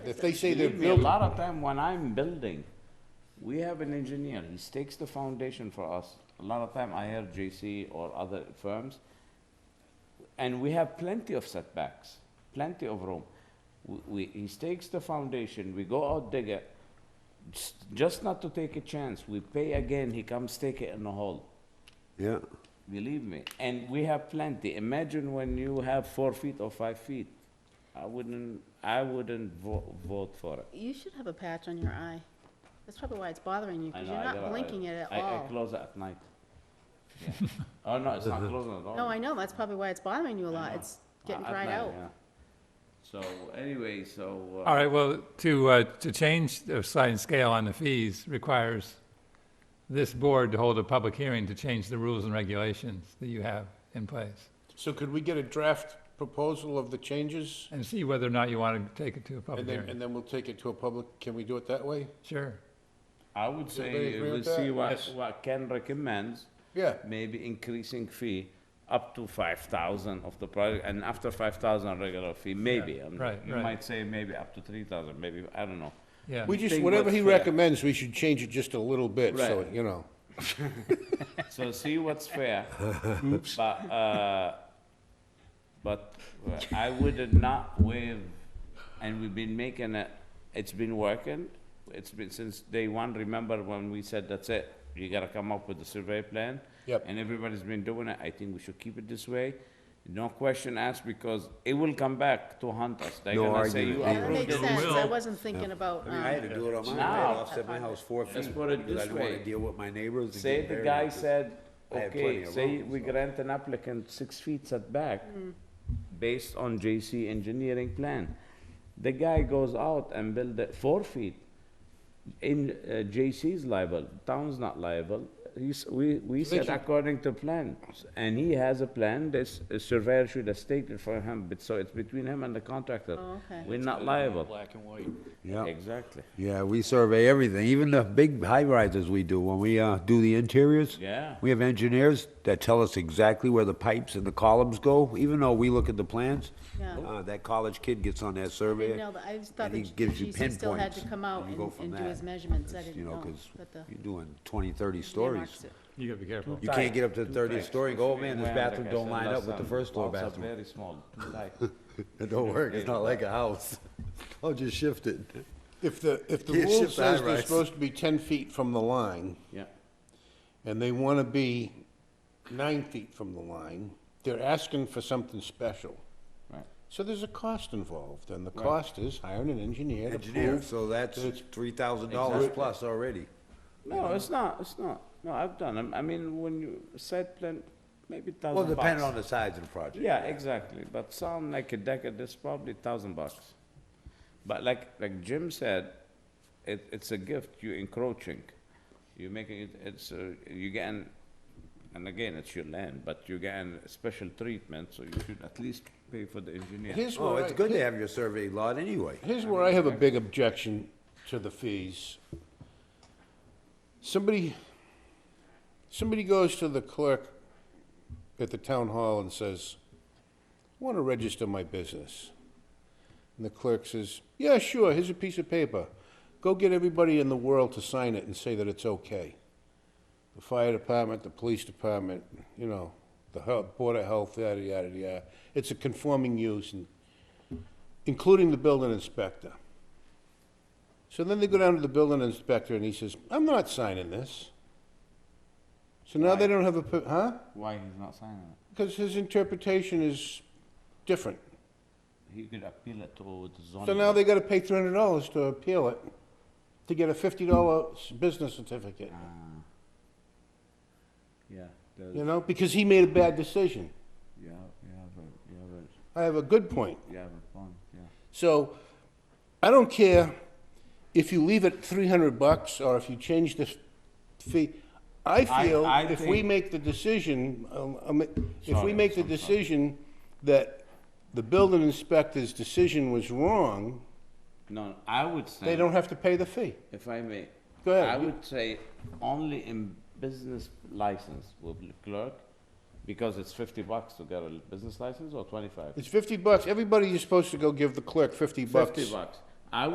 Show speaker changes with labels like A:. A: If they say they're
B: Believe me, a
A: building,
B: lot of time when I'm building, we have an engineer, he stakes the foundation for us. A lot of time I hear JC or other firms, and we have plenty of setbacks, plenty of room. W- We, he stakes the foundation, we go out dig it, s- just not to take a chance, we pay again, he comes take it in the hole.
A: yeah,
B: Believe me, and we have plenty. Imagine when you have four feet or five feet. I wouldn't, I wouldn't vo- vote for it.
C: You should have a patch on your eye. That's probably why it's bothering you,
B: I
C: because
B: know,
C: you're
B: I gotta-
C: not
B: I-
C: blinking it at
B: I- I
C: all.
B: close it at night. Yeah. Oh, no, it's not closing at all.
C: No, I know, that's probably why it's bothering you a lot.
B: know.
C: It's getting
B: At
C: dried
B: night,
C: out.
B: yeah. So, anyway, so,
D: All
B: uh,
D: right, well, to, uh, to change the slide and scale on the fees requires this board to hold a public hearing to change the rules and regulations that you have in place
A: so could we get a draft proposal of the changes?
D: and see whether or not you want to take it to a
A: And
D: public
A: then, and
D: hearing.
A: then we'll take it to a public, can we do it that way?
D: Sure.
B: I would
A: everybody
B: say,
A: agree
B: we'll
A: with that?
B: see what,
A: Yes.
B: what Ken recommends,
A: Yeah,
B: maybe increasing fee up to five thousand of the project, and after five thousand regular fee, maybe. I'm-
D: right,
B: You
D: right.
B: might say maybe up to three thousand, maybe, I don't know.
D: Yeah.
A: we just,
B: Think
A: whatever
B: what's
A: he
B: fair.
A: recommends, we should change it just a little bit, so,
B: Right.
A: you know.
B: So see what's fair. But, uh, but uh, I would not waive, and we've been making it, it's been working. It's been since day one, remember when we said, that's it, you gotta come up with a survey plan?
A: Yep.
B: And everybody's been doing it, I think we should keep it this way. No question asked, because it will come back to haunt us. They're
E: No
B: gonna say,
E: argument.
B: you
E: Yeah,
C: That
B: approved
C: makes
B: it."
C: sense. I wasn't thinking about,
E: I mean, I had
C: um,
E: to do it on mine, I had
B: Now-
E: to offset my house four feet.
B: Let's put it
E: because I
B: this
E: didn't wanna
B: way.
E: Deal with my neighbors. and
B: Say
E: get
B: the
E: buried
B: guy
E: with this.
B: said,
E: I have plenty
B: okay,
E: of
B: say
E: room,
B: we
E: so.
B: grant an applicant six feet setback
C: Hmm.
B: based on JC engineering plan. The guy goes out and build it four feet. In, uh, JC's liable, town's not liable. He's, we, we said
A: should-
B: according to plan, and he has a plan, this uh, surveyor should have stated for him, but so it's between him and the contractor.
C: Oh, okay.
B: We're not liable.
F: Black and white.
E: Yeah,
B: Exactly,
E: yeah, we survey everything, even the big high rises we do, when we, uh, do the interiors.
B: Yeah.
E: We have engineers that tell us exactly where the pipes and the columns go, even though we look at the plans.
C: Yeah.
E: Uh, that college kid gets on that
C: I
E: survey.
C: didn't know that. I just thought
E: and
C: that
E: he gives you
C: GC still had to
E: pinpoints,
C: come out
E: you go
C: and
E: from
C: and do
E: that,
C: his measurements. I
E: because,
C: didn't know
E: You know, 'cause
C: that the
E: you're doing 20, 30
C: earmarks
E: stories.
C: it.
D: You gotta be careful.
E: You can't get up to
B: Two
E: the thirtieth
B: types.
E: story and go, oh man, this
B: Well,
E: bathroom
B: like I
E: don't
B: said
E: line
B: last
E: up with the
B: time,
E: first floor
B: walls are
E: bathroom.
B: Very small, too tight.
E: It don't work, it's not like a house. I'll just shift it.
A: If the, if the
E: Can't
A: rule
E: shift the
A: says they're
E: high-rise.
A: supposed to be ten feet from the line,
B: Yeah.
A: and they wanna be nine feet from the line, they're asking for something special.
B: Right.
A: So there's a cost involved, and the cost is hiring an engineer to
E: Engineer,
A: prove
E: so that's
A: It's-
E: three thousand dollars plus already.
B: No, it's not, it's not. No, I've done, 'em. I mean, when you, site plan, maybe thousand
E: Well,
B: bucks.
E: depending on the size of the project.
B: Yeah, exactly, but sound like a decker, that's probably thousand bucks. But like, like Jim said, it, it's a gift, you're encroaching. You're making it, it's, uh, you getting, and again, it's your land, but you're getting special treatment, so you should at least pay for the engineer.
A: Here's
E: Oh,
A: where
E: it's
A: I,
E: good to have your survey lot anyway.
A: here's where I have a big objection to the fees. Somebody, somebody goes to the clerk at the town hall and says, I want to register my business. And the clerk says, yeah, sure, here's a piece of paper. Go get everybody in the world to sign it and say that it's okay. The fire department, the police department, you know, the health, board of health, yada, yada, yada. It's a conforming use and including the building inspector. So then they go down to the building inspector and he says, I'm not signing this. So now they don't have a, per- huh?
B: Why he's not signing it?
A: Because his interpretation is different.
B: He could appeal it to the zoning.
A: So now they gotta pay three hundred dollars to appeal it, to get a fifty dollar business certificate,
B: Yeah, there's-
A: you know, because he made a bad decision.
B: you have, you have a, you have a,
A: I have a good point.
B: you have a point, yeah.
A: So I don't care if you leave it three hundred bucks or if you change the fee. I
B: I-
A: feel
B: I
A: if we
B: think-
A: make the decision, um, um, if we
B: Sorry,
A: make the
B: I'm sorry.
A: decision that the building inspector's decision was wrong,
B: No, I would say.
A: they don't have to pay the fee.
B: If I may.
A: Go ahead.
B: I would say only in business license will be clerk, because it's fifty bucks to get a business license or twenty-five?
A: It's fifty bucks. Everybody is supposed to go give the clerk fifty bucks.
B: Fifty bucks.